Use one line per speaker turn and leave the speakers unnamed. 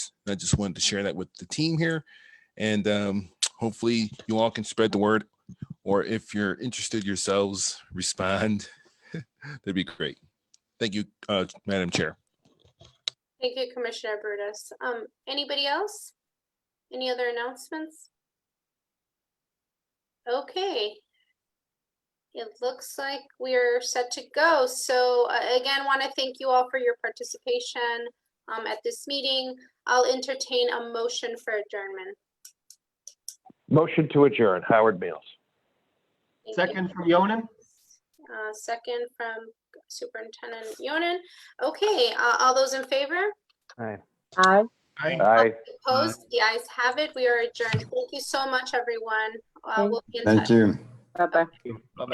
And I just wanted to share that with the team here. And um, hopefully you all can spread the word, or if you're interested yourselves, respond. That'd be great. Thank you, uh, Madam Chair.
Thank you, Commissioner Brutus. Um, anybody else? Any other announcements? Okay. It looks like we're set to go. So uh, again, want to thank you all for your participation um, at this meeting. I'll entertain a motion for adjournment.
Motion to adjourn, Howard Mills.
Thank you.
Second from Yonan?
Uh, second from Superintendent Yonan. Okay, uh, all those in favor?
Aye.
Aye.
Aye.
Opposed? The ayes have it. We are adjourned. Thank you so much, everyone. Uh,
Thank-
we'll be in touch.
Thank you.
Bye-bye.